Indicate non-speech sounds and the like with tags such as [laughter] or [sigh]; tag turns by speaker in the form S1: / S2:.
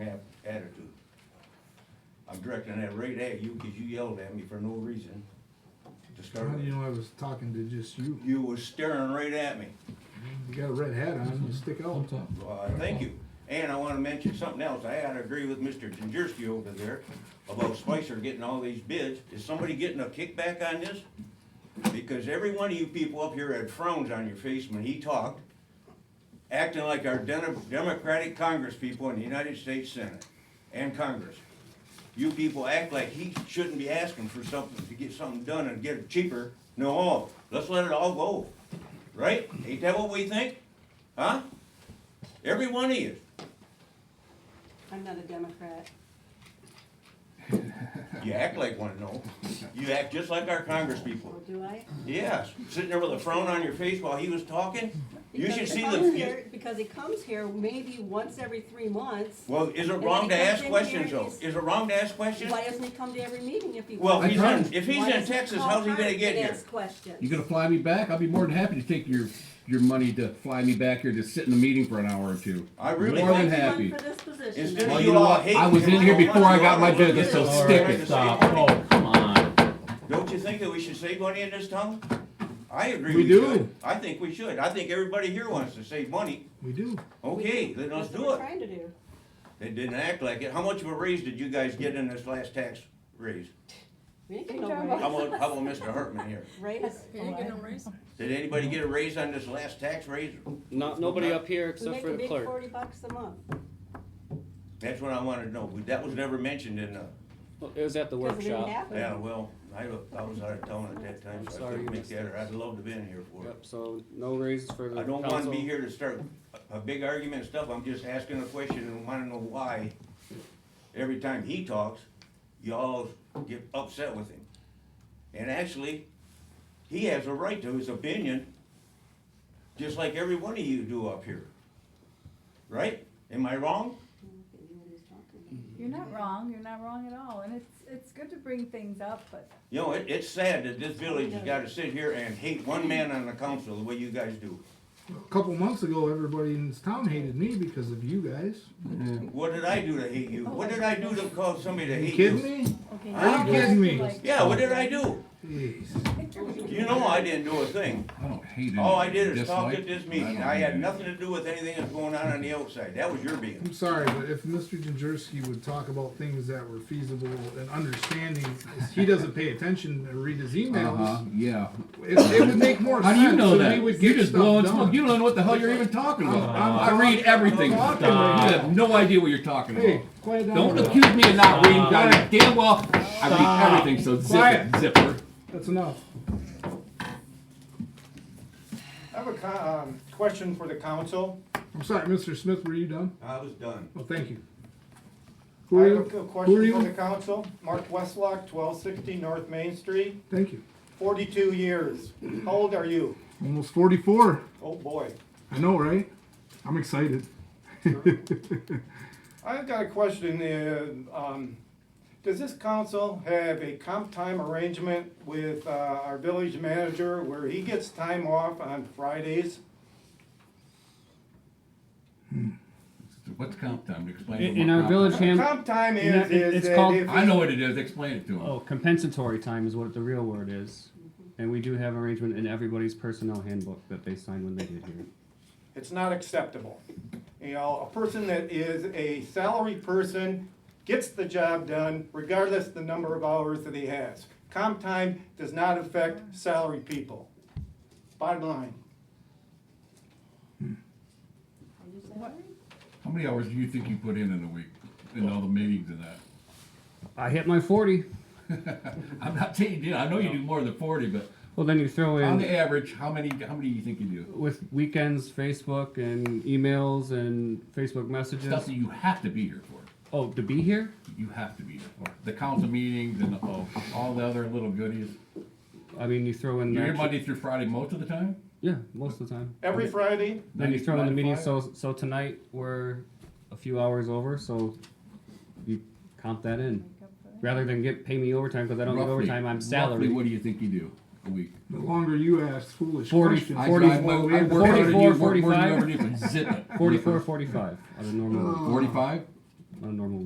S1: attitude. I'm directing that right at you, cause you yelled at me for no reason. To start
S2: How do you
S1: with.
S2: know I was talking to just you?
S1: You were staring right at me.
S2: You got a red hat on,
S3: Mhm.
S2: you stick out.
S3: Thumbs up.
S1: Uh, thank you. And I wanna mention something else. I had to agree with Mr. Jenderski over there about Spicer getting all these bids. Is somebody getting a kickback on this? Because every one of you people up here had frowns on your face when he talked, acting like our den- Democratic Congress people in the United States Senate and Congress. You people act like he shouldn't be asking for something to get something done and get it cheaper. No, let's let it all go, right? Ain't that what we think? Huh? Every one of you.
S4: I'm not a Democrat.
S1: You act like one, no. You act just like our Congress
S4: Well,
S1: people.
S4: do I?
S1: Yes, sitting there with a frown on your face while he was talking. You
S4: Because
S1: should
S4: he
S1: see
S4: comes
S1: the,
S4: here- Because he comes here maybe once every three months.
S1: well, is it
S4: And
S1: wrong to
S4: then he comes
S1: ask
S4: in
S1: questions
S4: here
S1: though?
S4: and
S1: Is it wrong to ask questions?
S4: Why doesn't he come to every meeting if he
S1: Well,
S4: wants?
S1: if he's
S3: I
S1: in,
S3: don't-
S1: if he's
S4: Why
S1: in
S4: doesn't he
S1: Texas,
S4: call
S1: how's he gonna
S4: Harvard
S1: get
S4: and
S1: here?
S4: ask questions?
S3: You gonna fly me back? I'll be more than happy to take your, your money to fly me back here to sit in the meeting for an hour or two.
S1: I really
S3: More
S4: Why
S3: than
S1: think,
S4: do you run For
S3: happy.
S4: this position.
S1: instead of
S3: Well,
S4: then?
S3: you
S1: you
S3: know
S1: all
S3: what?
S1: hating.
S3: I was
S1: him,
S3: in here
S1: you
S3: before
S1: want
S3: I got
S1: to
S3: my
S1: go to
S3: business, so
S1: the
S3: stick
S1: Congress
S3: it.
S1: and
S5: Stop,
S1: say,
S5: oh, come on.
S1: Don't you think that we should save money in this town? I agree
S3: We
S1: we
S3: do.
S1: should. I think we should. I think everybody here wants to save money.
S2: We do.
S1: Okay, then let's
S4: That's what
S1: do
S4: we're
S1: it.
S4: trying to do.
S1: They didn't act like it. How much of a raise did you guys get in this last tax raise?
S4: We ain't getting
S6: Good job.
S4: no
S1: How
S4: raise.
S1: about, how about Mr. Hartman here?
S4: Raise.
S6: You didn't get no raise?
S1: Did anybody get a raise on this last tax raise?
S7: Not, nobody up here
S4: We
S7: except
S4: make
S7: for
S4: a
S7: the
S4: big
S7: clerk.
S4: forty bucks a month.
S1: That's what I wanted to know. but That was never mentioned in the,
S7: Well, It was at the
S4: Because it didn't
S7: workshop.
S4: happen.
S1: yeah, well, I, I was out of town at that time,
S7: I'm
S1: so I
S7: sorry you
S1: couldn't make
S7: missed it.
S1: that, or I'd love to have been here for it.
S7: Yep, so no raises for the
S1: I
S7: council.
S1: don't wanna be here to start a a big argument and stuff. I'm just asking a question and wanna know why every time he talks, y'all get upset with him. And actually, he has a right to his opinion, just like every one of you do up here. Right? Am I wrong?
S6: [laughs]
S4: Mm,
S6: You're not wrong, you're not wrong at all, and it's, it's good to bring things up, but
S1: You know, it, it's sad that this village has gotta sit here and hate one man on the council the way you guys do.
S2: A couple months ago, everybody in this town hated me because of you guys.
S1: What did I do to hate you? What did I do to cause somebody to
S2: Are you
S1: hate
S2: kidding
S1: you?
S2: me?
S6: okay.
S1: Are you
S6: now
S2: kidding me?
S6: like-
S1: Yeah, what did I
S6: [laughs]
S1: do?
S2: Jeez.
S1: You know I didn't do a thing.
S3: I don't hate it.
S1: All I did is talk at this meeting. I had nothing to do with anything that's going on on the outside. That was your being.
S2: I'm sorry, but if Mr. Jenderski would talk about things that were feasible and understanding, he doesn't pay attention and read his
S3: Uh-huh,
S2: emails.
S3: yeah.
S2: It, it would make more
S3: How
S2: sense.
S3: do you know
S2: and
S3: that?
S2: we would
S3: You're
S2: get
S3: just
S2: stuff
S3: blowing
S2: done.
S3: smoke. You don't know what the hell you're even talking
S2: I'm- I'm
S3: about. I read
S2: talking-
S3: everything. You
S2: I'm talking right now.
S3: have no idea what you're talking
S2: Hey,
S3: about.
S2: quiet down.
S3: Don't accuse me of not reading. I
S2: Stop.
S3: damn well, I read everything, so zip
S2: Quiet.
S3: it, zipper.
S2: That's enough.
S8: I have a co- um, question for the council.
S2: I'm sorry, Mr. Smith, were you done?
S1: I was done.
S2: Well, thank you.
S8: I
S2: Who are you?
S8: have a
S2: Who are
S8: question for the
S2: you?
S8: council. Mark Westlock, twelve sixty North Main Street,
S2: Thank you.
S8: forty-two years. How old are you?
S2: Almost forty-four.
S8: Oh, boy.
S2: I know, right? I'm excited.
S8: I've got a question. uh, um, Does this council have a comp time arrangement with uh, our village manager where he gets time off on Fridays?
S3: What's comp time? Explain.
S5: In,
S3: what
S5: in our
S3: comp
S5: village
S3: time-
S5: handbook,
S8: Comp time
S5: You know,
S8: is,
S5: it-
S8: is
S5: it's
S8: that
S5: called-
S8: if.
S3: I know what it is. Explain it to him.
S5: oh, compensatory time is what the real word is.
S4: Mm-hmm.
S5: And we do have arrangement in everybody's personnel handbook that they sign when they get here.
S8: It's not acceptable. You know, a person that is a salary person gets the job done regardless the number of hours that he has. Comp time does not affect salary people. Bottom line.
S3: How many hours do you think you put in in a week in all the meetings and that?
S5: I hit my forty.
S3: I'm not saying you did. I know you do more than forty, but
S5: Well, then you throw
S3: on the
S5: in
S3: average, how many? How many do you think you do?
S5: with weekends, Facebook and emails and Facebook
S3: Stuff
S5: messages.
S3: that you have to be here for.
S5: Oh, to be here?
S3: You have to be here for the council meetings and all, all the other little goodies.
S5: I mean, you throw in
S3: You're here
S5: that.
S3: Monday through Friday most of the time.
S5: Yeah, most of the time.
S8: Every Friday,
S5: Then you throw in the
S3: Nine to
S5: meeting,
S3: five?
S5: so, so tonight we're a few hours over, so you comp that in. Rather than get, pay me overtime, cause I don't get
S3: Roughly-
S5: overtime, I'm
S3: roughly
S5: salary.
S3: What do you think you do a week?
S2: The longer you ask foolish
S5: 40
S2: questions.
S3: I
S5: Forty-
S3: drive my- I work harder than you, work
S5: 44,
S3: more than you
S5: 45.
S3: ever did, but zip it.
S5: Forty-four, forty-five on a normal,
S3: Forty-five.
S5: on a normal